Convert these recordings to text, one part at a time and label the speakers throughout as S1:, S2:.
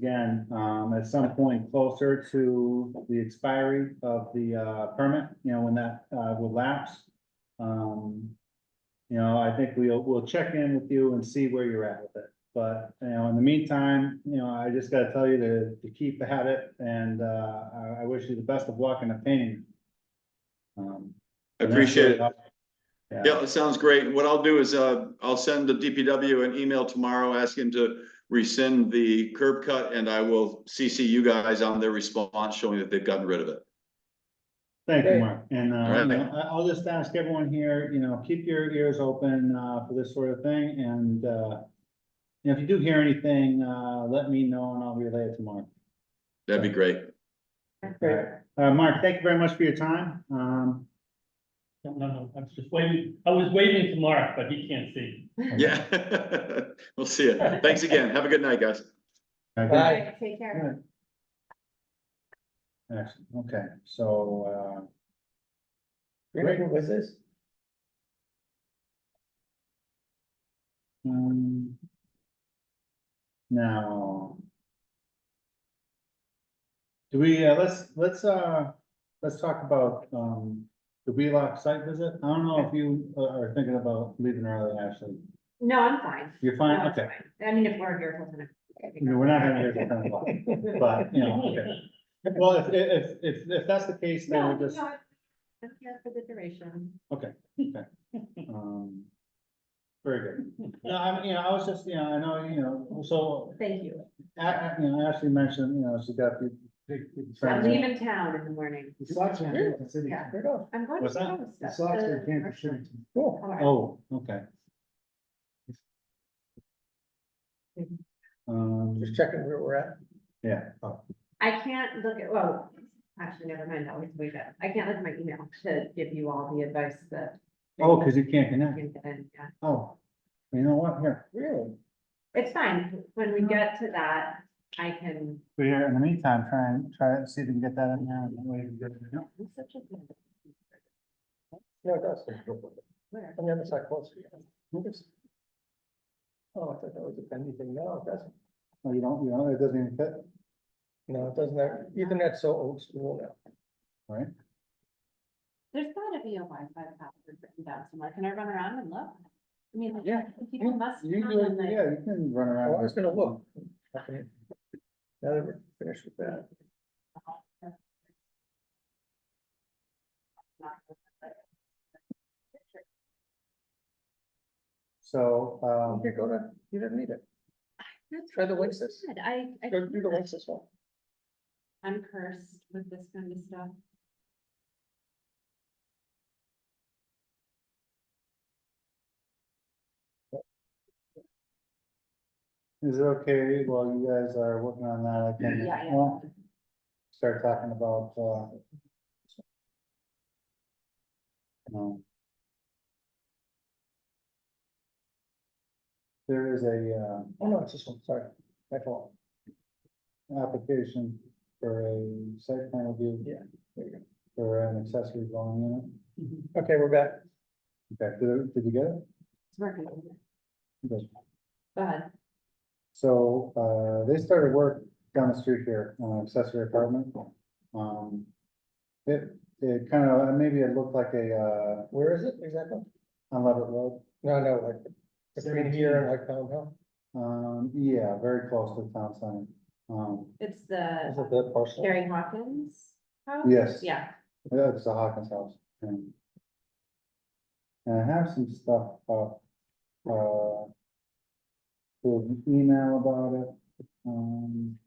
S1: again, um, at some point closer to the expiry of the, uh, permit, you know, when that, uh, will lapse. Um, you know, I think we'll, we'll check in with you and see where you're at with it. But, you know, in the meantime, you know, I just gotta tell you to, to keep at it and, uh, I, I wish you the best of luck in obtaining. Um,
S2: I appreciate it.
S1: Yeah.
S2: Yeah, it sounds great. And What I'll do is, uh, I'll send the DPW an email tomorrow asking to rescind the curb cut and I will CC you guys on their response showing that they've gotten rid of it.
S1: Thank you,
S3: Okay.
S1: Mark, and, uh,
S2: All right.
S1: you know, I, I'll just ask everyone here, you know, keep your ears open, uh, for this sort of thing, and, uh. If you do hear anything, uh, let me know and I'll relay it to Mark.
S2: That'd be great.
S3: Great.
S1: Uh, Mark, thank you very much for your time, um,
S4: No, no, no, I was just waiting, I was waiting to Mark, but he can't see.
S2: Yeah. We'll see you. Thanks again. Have a good night, guys.
S1: I think-
S3: Bye.
S5: Take care.
S1: Good. Excellent, okay, so, uh,
S3: Great, what was this?
S1: Um. Now. Do we, uh, let's, let's, uh, let's talk about, um, the Wheelock site visit. I don't know if you uh, are thinking about leaving early, Ashley.
S5: No, I'm fine.
S1: You're
S5: No,
S1: fine,
S5: it's
S1: okay.
S5: fine. I mean, if we're here, till
S1: You know,
S5: then.
S1: We're not gonna hear from o'clock, but, you know, okay. Well, if, if, if, if that's the case, then
S5: No,
S1: we'll just,
S5: no, I'm here for the duration.
S1: um. Very good. No, I'm, you know, I was just, you know, I know, you know, so,
S5: Thank you.
S1: A- A- you know, Ashley mentioned, you know, she got the. big- big
S5: I'm
S1: friends.
S5: leaving town in the morning.
S6: The socks are in the city.
S5: Yeah.
S3: Right off.
S5: I'm going to.
S1: What's that?
S5: Provo
S6: The
S5: stuff, Uh,
S6: socks are
S5: the
S6: in the
S5: commercial.
S6: city.
S3: Cool.
S5: All right.
S1: Oh, okay. Um,
S3: Just checking where we're at.
S1: yeah, oh,
S5: I can't look at, well, actually, never mind, I'll wait way back. I can't look at my email to give you all the advice that.
S1: oh, cause you can't
S5: I
S1: connect,
S5: can get in, yeah.
S1: oh, you know what, here,
S3: Really?
S5: It's fine. When we get to that, I can.
S1: but here, in the meantime, try and, try and see if we can get that in there. and that way we can get it, you know?
S5: I'm such a good-
S3: No, it does.
S5: Where?
S3: On the other side closer. Oh, I thought that was a penny thing. No, it doesn't.
S1: Oh, you don't, you know, it doesn't even fit,
S3: No, it doesn't. That- Ethernet's so old school now.
S1: right?
S5: There's gotta be a Wi-Fi password written down somewhere. Can I run around and look? I mean, like,
S1: Yeah.
S5: people must.
S1: You
S5: come
S1: do,
S5: and,
S1: it,
S5: like-
S1: yeah, you can run
S3: Oh, I
S1: around.
S3: was gonna look. Okay. Now that we're finished with that.
S1: So, um,
S3: You go to, you didn't need it. Try the Oasis.
S5: Good. I, I,
S3: Go do the
S5: can't.
S3: Oasis one.
S5: I'm cursed with this kind of stuff.
S1: is it okay while you guys are working on that? I can-
S5: Yeah, yeah.
S1: well, Start talking about, uh. um, There is a, uh.
S3: Oh, no, it's this one. Sorry. My fault.
S1: application for a site plan review.
S3: Yeah, there you
S1: For an accessory dwelling
S3: Okay, we're back.
S1: unit. Okay, did, did you get it?
S5: It's working.
S1: Good.
S5: Go ahead.
S1: So, uh, they started work down the street here on accessory apartment. Um, it, it kind of, maybe it looked like a,
S3: Where is it exactly?
S1: uh, on Levitt Road.
S3: No, no, like between here and like Pound Hill.
S1: Um, yeah, very close to the town center. Um,
S5: It's
S3: Is
S5: the
S3: it that parcel?
S5: Carrie Hawkins house?
S1: Yes.
S5: Yeah.
S1: yeah, it's the Hawkins house. And and I have some stuff, up, uh, with an email about it, um.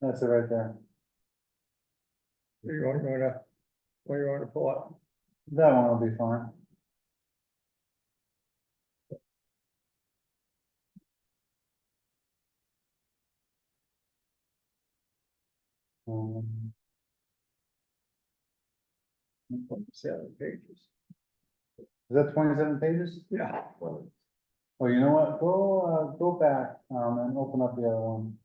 S1: That's it right there.
S3: Where you want, where to, where you want to pull up?
S1: That one will be fine. Um,
S3: Seven pages.
S1: is that twenty-seven pages?
S3: Yeah.
S1: Oh, you know what? Go, uh, go back, um, and open up the other one.